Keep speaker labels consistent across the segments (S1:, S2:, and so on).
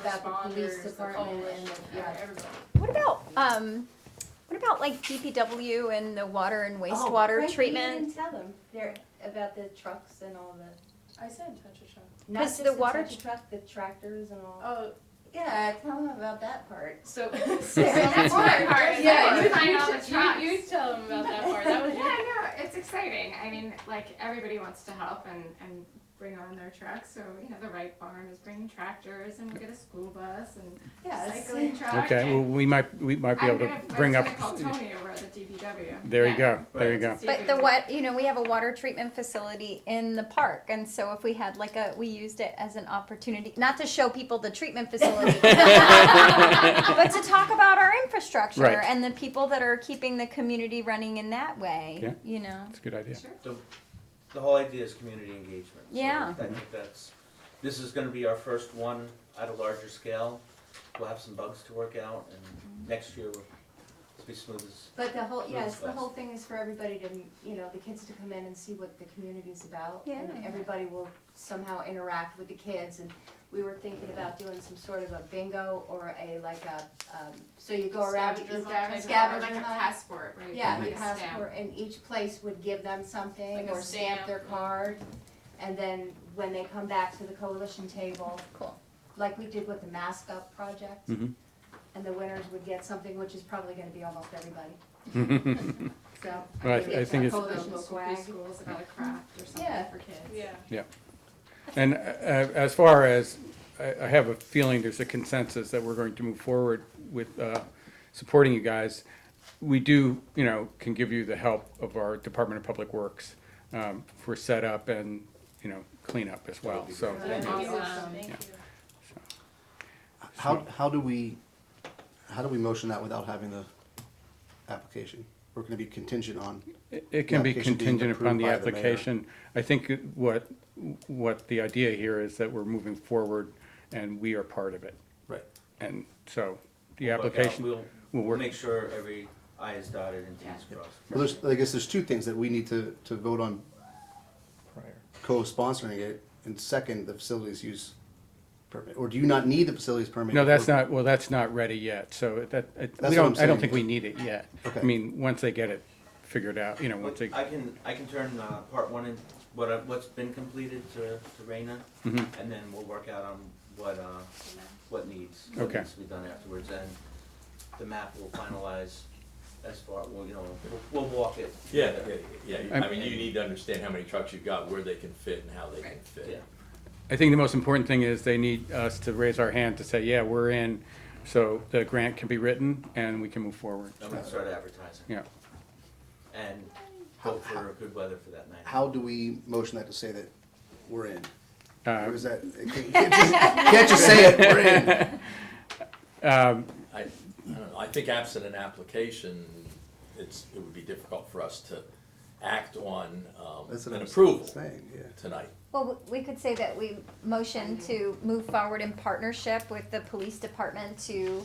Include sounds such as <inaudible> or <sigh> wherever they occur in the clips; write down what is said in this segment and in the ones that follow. S1: about the police
S2: responders, the
S1: department and
S2: coalition,
S1: the- yeah.
S2: everybody.
S3: What about, um, what about like DPW and the water and
S1: Oh,
S3: wastewater
S1: Right, we
S3: treatment?
S1: didn't tell them, they're, about the trucks and all the,
S2: I said touch a truck.
S1: not
S3: 'Cause
S1: just the
S3: the water
S1: touch truck, the tractors and all.
S2: Oh,
S1: Yeah, tell them about that part.
S2: so. <laughs>
S1: That's
S4: hard. That's
S2: Yeah,
S4: hard.
S2: you,
S4: Find
S2: you,
S4: all the
S2: should-
S4: trucks.
S2: you, you tell them about that part, <laughs> that was
S4: Yeah, no, it's exciting. I mean, like everybody wants to help and, and bring on their trucks. So you know, the Wright Barn is bringing tractors, and we get a school bus and
S1: Yes.
S4: cycling truck.
S5: Okay, well,
S4: and
S5: we might, we might be
S4: I'm
S5: able
S4: gonna,
S5: to bring
S4: I'm
S5: up,
S4: just gonna call Tony over at the DPW.
S5: there you
S4: Yeah.
S5: go, there you go.
S4: To see if
S3: But
S4: we
S3: the
S4: can-
S3: what, you know, we have a water treatment facility in the park, and so if we had like a, we used it as an opportunity, not to show people the treatment facility. But to talk about our infrastructure
S5: Right.
S3: and the people that are keeping the community running in that
S5: Yeah.
S3: way, you know?
S5: That's a good idea.
S4: Sure.
S6: The, the whole idea is community engagement. So
S3: Yeah.
S6: I think that's, this is gonna be our first one at a larger scale. We'll have some bugs to work out and next year we'll, it'll be smooth as,
S1: But the whole, yes, the
S6: Yes.
S1: whole thing is for everybody to, you know, the kids to come in and see what the community's about. And
S3: Yeah.
S1: everybody will somehow interact with the kids, and we were thinking about doing some sort of a bingo or a, like a, um, so you go around.
S4: scavenger
S1: each-
S4: hunt, or
S1: scavenger
S4: like a
S1: hunt.
S4: passport, right?
S1: Yeah,
S4: Like
S1: the
S4: a stamp.
S1: passport, and each place would give them something
S2: Like a
S1: or stamp
S2: stamp.
S1: their card. And then when they come back to the coalition table.
S3: Cool.
S1: Like we did with the mask up project.
S5: Mhm.
S1: And the winners would get something, which is probably gonna be almost everybody,
S5: <laughs>
S1: so.
S5: Well, I- I think it's-
S4: Or
S1: Coalition
S4: local
S1: swag.
S4: preschools about a craft or
S1: Yeah.
S4: something for kids.
S2: Yeah.
S5: And uh, as far as, I, I have a feeling there's a consensus that we're going to move forward with, uh, supporting you guys. We do, you know, can give you the help of our Department of Public Works, um, for setup and, you know, cleanup as well, so.
S2: Thank you.
S4: Awesome.
S2: Thank you.
S7: How, how do we, how do we motion that without having the application? We're gonna be contingent on,
S5: It- It can be
S7: application being
S5: contingent upon
S7: approved
S5: the
S7: by the mayor.
S5: application. I think it- what, what the idea here is that we're moving forward and we are part of it.
S7: right,
S5: And so the
S6: We'll work out.
S5: application
S6: We'll-
S5: will
S6: we'll
S5: work.
S6: make sure every I is dotted and T is crossed.
S7: well, there's, I guess there's two things that we need to, to vote on co-sponsoring it, and second, the facilities use permit, or do you not need the facilities permit?
S5: No, that's
S7: before-
S5: not, well, that's not ready yet, so that, it-
S7: That's
S5: we
S7: what
S5: don't,
S7: I'm
S5: I don't
S7: saying.
S5: think we need it yet. I
S7: Okay.
S5: mean, once they get it figured out, you know, once they,
S6: I can, I can turn, uh, part one and what, I- what's been completed to, to Raina.
S5: Mhm.
S6: And then we'll work out on what, uh, what needs. what
S5: Okay.
S6: Needs to be done afterwards, and the map will finalize as far, well, you know, we'll, we'll walk it.
S8: Yeah,
S6: together.
S8: yeah, yeah, yeah.
S5: I'm-
S8: I mean, you need to understand how many trucks you've got, where they can fit and how they can
S6: Yeah.
S8: fit.
S5: I think the most important thing is they need us to raise our hand to say, yeah, we're in, so the grant can be written and we can move forward.
S6: I'm gonna start advertising.
S5: Yeah. Uh,
S6: And
S7: How-
S6: hope
S7: how-
S6: for good weather for that night.
S7: How do we motion that to say that we're in?
S5: Uh,
S7: Or is that, you can't just- you can't just say it, we're
S8: <laughs>
S7: in.
S5: um,
S8: I, I don't know, I think absent an application, it's, it would be difficult for us to act on, um,
S7: That's what
S8: an
S7: I'm
S8: approval
S7: saying, yeah.
S8: tonight.
S3: Well, w- we could say that we motion to move forward in partnership with the police department to,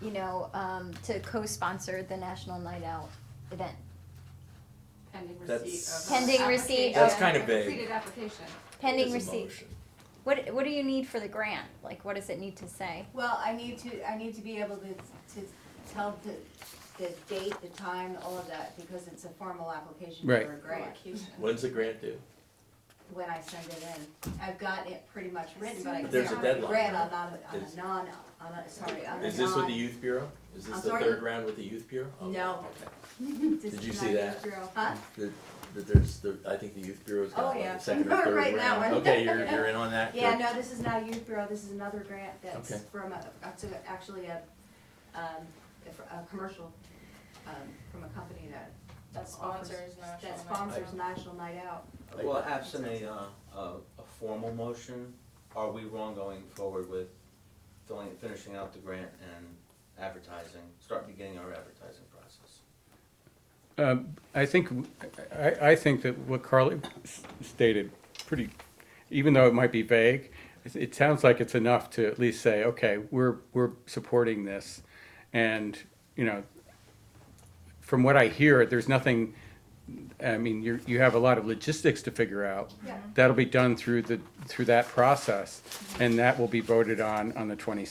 S3: you know, um, to co-sponsor the National Night Out event.
S4: Pending
S8: That's-
S4: receipt of.
S3: Pending receipt
S8: That's
S3: of-
S8: kind of vague.
S4: Completed application.
S3: Pending
S8: As a
S3: receipt.
S8: motion.
S3: What, what do you need for the grant? Like, what does it need to say?
S1: Well, I need to, I need to be able to, to tell the, the date, the time, all of that, because it's a formal application for
S5: Right.
S1: a grant,
S8: When's the grant due?
S1: when I send it in. I've got it pretty much written, but I
S8: But there's a
S1: can't have a
S8: deadline,
S1: grant on, on a, on
S8: Is-
S1: a non, on a, sorry, on a non.
S8: Is this with the youth bureau? Is
S1: I'm
S8: this the
S1: sorry?
S8: third round with the youth bureau? Oh,
S1: No.
S8: okay.
S1: <laughs> This
S8: Did
S1: is
S8: you
S1: not
S8: see that?
S1: zero. Huh?
S8: That, that there's, the I think the youth bureau's
S1: Oh,
S8: got like
S1: yeah.
S8: the second or third
S1: <laughs>
S8: round.
S1: Right, that one.
S8: Okay, you're, you're in on
S1: <laughs>
S8: that?
S1: Yeah,
S8: Good.
S1: no, this is not a youth bureau, this is another grant that's
S8: Okay.
S1: from a, that's a- actually a, um, a, fr- a commercial, um, from a company that.
S2: That
S1: offers-
S2: sponsors National
S1: That
S2: Night
S1: sponsors
S2: Out.
S1: National Night Out.
S6: Well, absent a, uh, a, a formal motion, are we wrong going forward with filling, finishing out the grant and advertising, start beginning our advertising process?
S5: Um, I think, I, I think that what Carly s- stated, pretty, even though it might be vague, it- it sounds like it's enough to at least say, okay, we're, we're supporting this. And, you know, from what I hear, there's nothing, I mean, you, you have a lot of logistics to figure out.
S1: Yeah.
S5: That'll be done through the, through that process, and that will be voted on on the twenty-second.